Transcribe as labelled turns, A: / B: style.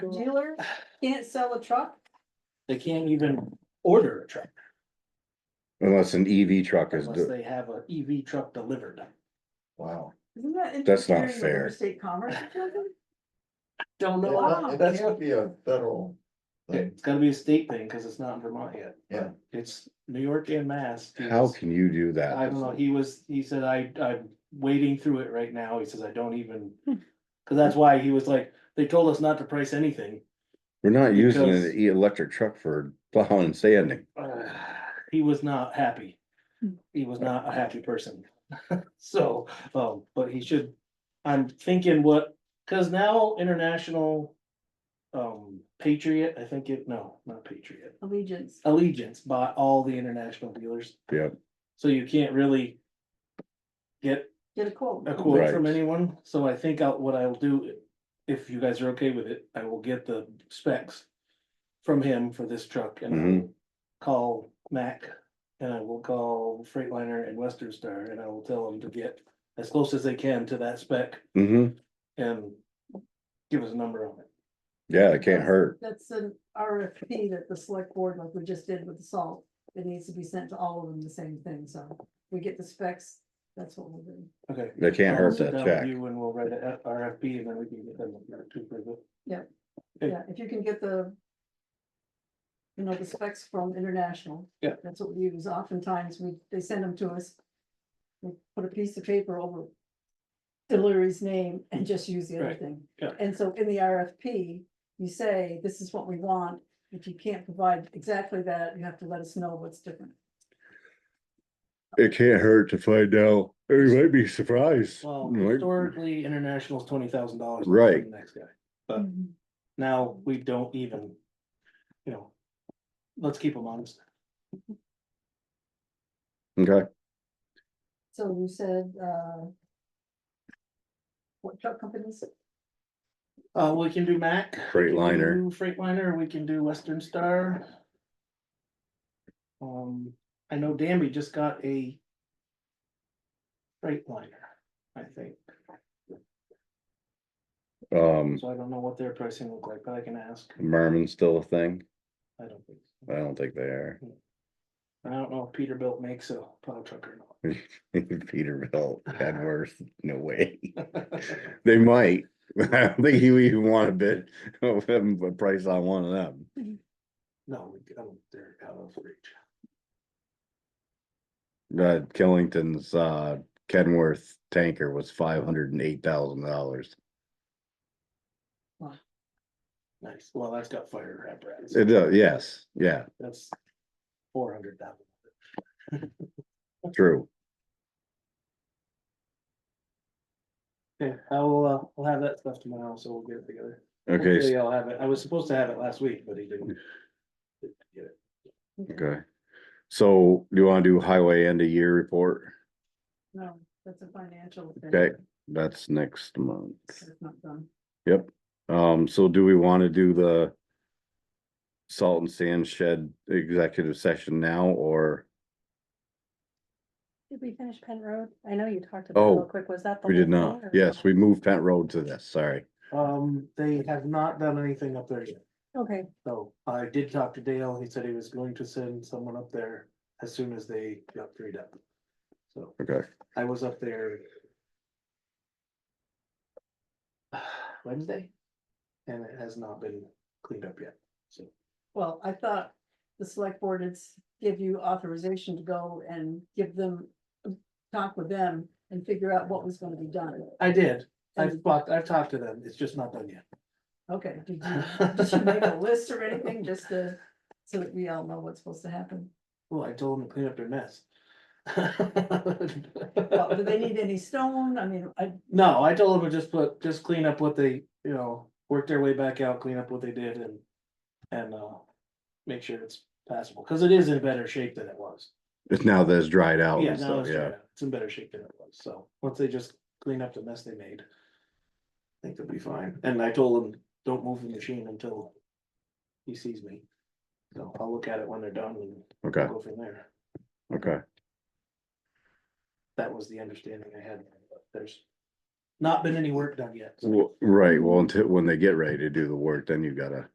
A: dealer can't sell a truck?
B: They can't even order a truck
C: Unless an EV truck is,
B: unless
C: the-
B: they have an EV truck delivered.
C: wow,
A: Isn't that
C: That's not
A: interfering with
C: fair.
A: interstate commerce or something?
B: Don't know.
A: Wow.
B: how.
D: That's gonna be a federal. thing.
B: It's gotta be a state thing, cause it's not in Vermont yet.
D: Yeah.
B: It's New York and Mass.
C: how can you do
B: I don't
C: that?
B: know, he was, he said, I, I'm wading through it right now, he says, I don't even. Cause that's why he was like, they told us not to price anything.
C: We're not using
B: Because-
C: an e- electric truck for plowing and sanding.
B: Uh, He was not happy. He was not a happy person. So, um, but he should, I'm thinking what, cause now international. Um, Patriot, I think it, no, not Patriot,
A: Allegiance.
B: Allegiance bought all the international dealers.
C: Yep.
B: So you can't really. Get
A: Get a quote.
B: a quote
C: Right.
B: from anyone, so I think I'll, what I'll do, if you guys are okay with it, I will get the specs. From him for this truck and I'll
C: Mhm.
B: call Mac and I will call Freightliner and Western Star and I will tell them to get. As close as they can to that spec
C: hmm
B: and give us a number on it.
C: yeah, it can't hurt.
A: That's an RFP that the select board, like we just did with the salt, it needs to be sent to all of them, the same thing, so we get the specs, that's what we'll do.
B: Okay.
C: They can't
B: I'll
C: hurt
B: sit
C: that
B: down with
C: check.
B: You and we'll write a F- RFP and then we can get them to approve it. Okay.
A: Yeah, if you can get the. You know, the specs from international.
B: Yeah.
A: That's what we use, oftentimes we, they send them to us. We put a piece of paper over. Delivery's name and just use the other
B: Right,
A: thing.
B: yeah.
A: And so in the RFP, you say, this is what we want, if you can't provide exactly that, you have to let us know what's different.
C: It can't hurt to find out. You might be surprised.
B: Well,
C: Might-
B: historically, international's twenty thousand dollars.
C: Right.
B: Next guy. But- Now, we don't even, you know, let's keep them honest.
C: Okay,
A: So you said, uh. What truck companies?
B: Uh, we can do Mac. we can
C: Freightliner.
B: do Freightliner, we can do Western Star. Um, I know Danby just got a Freightliner, I think,
C: um,
B: so I don't know what their pricing look like, but I can ask,
C: Merman's still a thing.
B: I don't think.
C: I
B: so.
C: don't think they are.
B: I don't know if Peterbilt makes a plow truck or not.
C: Peterbilt, Edworth, no way. They might. I don't think you even want to bid of them, a price on one of them.
B: No, we- I don't, they're out of reach.
C: Uh, Killington's, uh, Kenworth tanker was five hundred and eight thousand dollars.
B: Nice, well, that's got fire apparatus.
C: It, uh, yes, yeah,
B: That's four hundred thousand.
C: true.
B: Okay, I will, uh, we'll have that stuff tomorrow, so we'll get it together.
C: Okay, s-
B: Hopefully I'll have it. I was supposed to have it last week, but he didn't. didn't get it.
C: okay. So do you want to do highway end of year report?
A: No, that's a financial. thing.
C: Okay, that's next month.
A: That's not done.
C: Um, so do we want to do the salt and sand shed executive session now or
E: Did we finish Penn Road? I know you talked about it
C: Oh,
E: real quick. Was that the?
C: we did
E: whole
C: not?
E: thing, or-
C: Yes, we moved Pent Road to this, sorry.
B: Um, they have not done anything up there yet,
E: Okay,
B: so I did talk to Dale. He said he was going to send someone up there as soon as they got freed up. So
C: Okay,
B: I was up there. Wednesday? And it has not been cleaned up yet, so.
A: Well, I thought the select board would s- give you authorization to go and give them, talk with them and figure out what was gonna be done.
B: I did. I've
A: And-
B: talked, I've talked to them. It's just not done yet.
A: Okay, did you, did you make a list or anything, just to, so that we all know what's supposed to happen?
B: Well, I told them to clean up their mess.
A: Well, do they need any stone? I mean, I,
B: No, I told them to just put, just clean up what they, you know, work their way back out, clean up what they did and. And uh, make sure it's passable, cause it is in better shape than it was.
C: it's now that it's dried out
B: Yeah,
C: and
B: now
C: stuff,
B: it's,
C: Oh, yeah.
B: dried out. it's in better shape than it was, so once they just clean up the mess they made. I think they'll be fine, and I told them, don't move the machine until. He sees me. So I'll look at it when they're done and
C: Okay,
B: go from there.
C: okay.
B: That was the understanding I had, but there's. not been any work done yet.
C: Well, right, well, until, when they get ready to do the work, then you gotta.